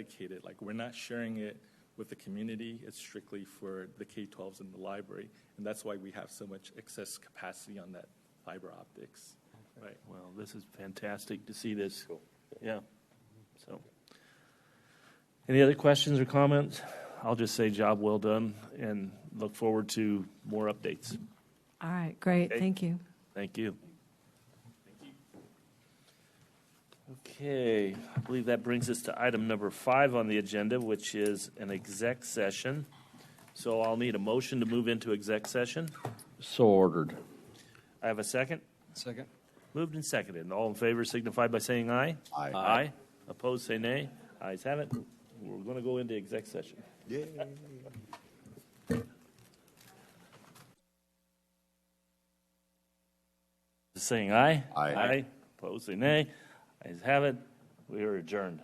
dedicated, like, we're not sharing it with the community, it's strictly for the K-12s in the library, and that's why we have so much excess capacity on that fiber optics, right? Well, this is fantastic to see this. Yeah, so. Any other questions or comments? I'll just say job well done and look forward to more updates. All right, great, Okay. thank you. Thank you. Okay, I believe that brings us to item number five on the agenda, which is an exec session. So I'll need a motion to move into exec session. So ordered. I have a second. Second. Moved and seconded. All in favor signify by saying aye. Aye. Aye. Opposed, say nay. Ayes have it. We're going to go into exec session. Saying aye. Aye. Aye. Opposed, say nay. Ayes have it. We are adjourned.